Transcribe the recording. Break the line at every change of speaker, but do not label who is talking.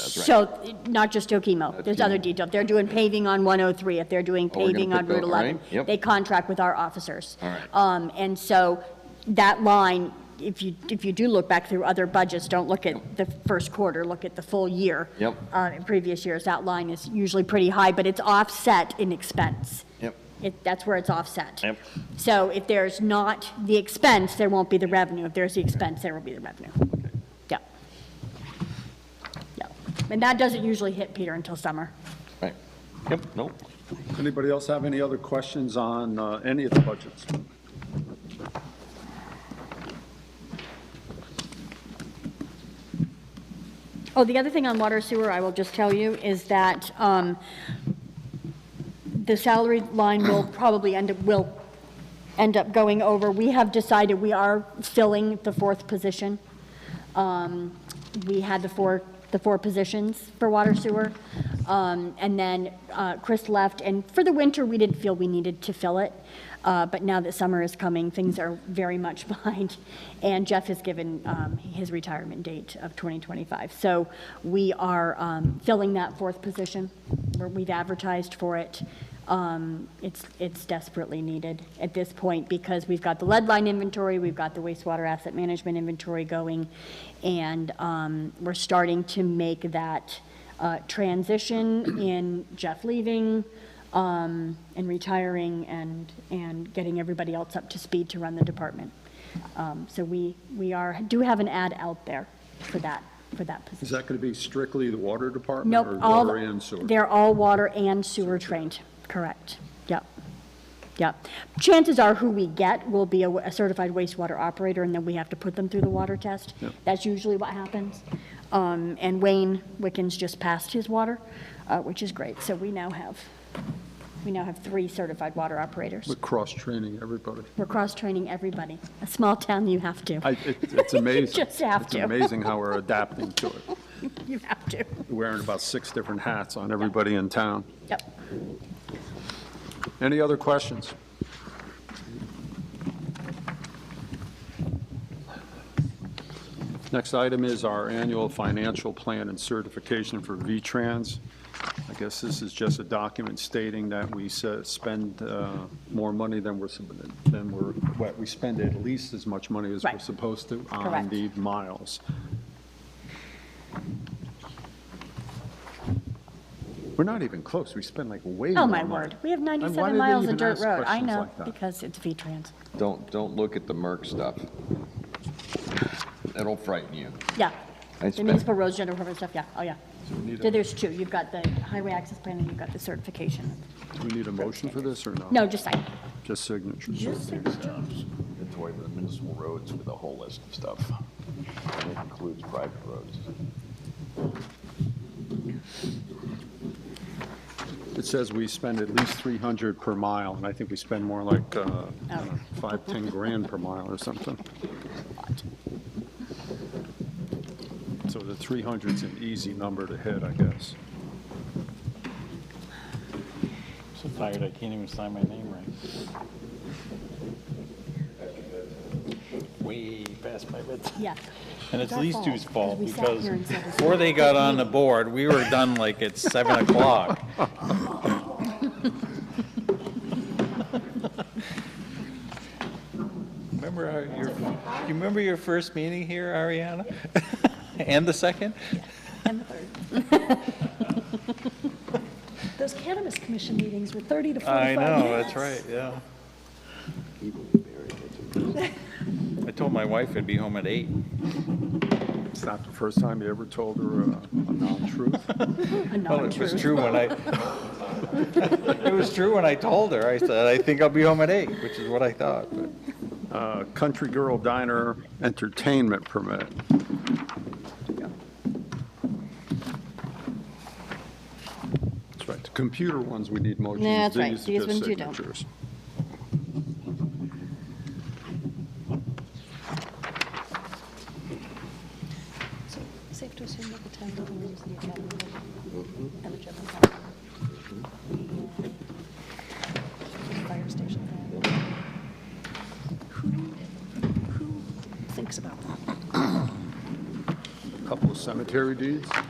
That's right.
So, not just Okemo, there's other detail. If they're doing paving on 103, if they're doing
Oh, we're gonna
paving
put
on Route
the- all right,
11,
yep.
they contract with our officers.
All right.
Um, and so that line, if you, if you do look back through other budgets, don't look at the first quarter, look at the full year.
Yep.
Uh, in previous years, that line is usually pretty high, but it's offset in expense.
Yep.
It, that's where it's offset.
Yep.
So if there's not the expense, there won't be the revenue. If there's the expense, there will be the revenue. Yeah. Yeah. And that doesn't usually hit Peter until summer.
Right. Yep, nope.
Anybody else have any other questions on uh, any of the budgets?
Oh, the other thing on water sewer, I will just tell you, is that um, the salary line will probably end up, will end up going over. We have decided we are filling the fourth position. Um, We had the four, the four positions for water sewer. Um, And then uh, Chris left, and for the winter, we didn't feel we needed to fill it. Uh, But now that summer is coming, things are very much behind. And Jeff has given um, his retirement date of 2025. So we are um, filling that fourth position. We're- We've advertised for it. Um, It's, it's desperately needed at this point because we've got the lead line inventory, we've got the wastewater asset management inventory going, and um, we're starting to make that uh, transition in Jeff leaving um, and retiring and, and getting everybody else up to speed to run the department. Um, So we, we are, do have an ad out there for that, for that position.
Is that going to be strictly the water department?
Nope,
Or
all,
water and sewer?
they're all water and sewer trained, correct. Yep, yep. Chances are who we get will be a wa- a certified wastewater operator, and then we have to put them through the water test. That's usually what happens. Um, And Wayne Wickens just passed his water, uh, which is great, so we now have, we now have three certified water operators.
We're cross-training everybody.
We're cross-training everybody. A small town, you have to.
I- it- It's amazing.
Just have to.
It's amazing how we're adapting to it.
You have to.
Wearing about six different hats on everybody in town.
Yep.
Any other questions? Next item is our annual financial plan and certification for V-Trans. I guess this is just a document stating that we s- spend uh, more money than we're, sub- than we're, what, we spend at least as much money as we're
Right.
supposed to on
Correct.
the miles. We're not even close. We spend like way more
Oh,
money.
my word. We have
And
97
why do they
miles of
even
dirt
ask
road. I
questions
know,
like that?
because it's V-Trans.
Don't, don't look at the Merck stuff. That'll frighten you.
Yeah.
I
The
spent-
municipal roads, general permit stuff, yeah, oh, yeah. Yeah, There's two, you've got the highway access plan and you've got the certification.
Do we need a motion for this or no?
No, just sign.
Just signatures.
Just
It's away with the municipal roads with a whole list of stuff. And it includes private roads.
It says we spend at least 300 per mile, and I think we spend more like uh, I don't know, five, 10 grand per mile or something. So the 300's an easy number to hit, I guess.
So tired, I can't even sign my name right. Way past my bedtime.
yeah.
And it's
our
these
fault,
two's
'cause
fault
we sat
because
here and said it's
before they got on the board, we were done like at seven o'clock. Remember how your, do you remember your first meeting here, Ariana? And the second?
And the third. Those cannabis commission meetings were 30 to 45
I
minutes.
know, that's right, yeah. I told my wife I'd be home at eight.
It's not the first time you ever told her uh, a- a non-truth.
A
Well, it was
non-truth.
true when I, it was true when I told her. I said, I think I'll be home at eight, which is what I thought, but.
Uh, Country Girl Diner Entertainment Permit. That's right, the computer ones, we need motions.
Yeah, that's right.
are
These
just
ones you don't.
signatures.
So safe to assume that the town doesn't use the academy building and the general fund. And Fire station. Who who thinks about that?
Couple of cemetery deeds.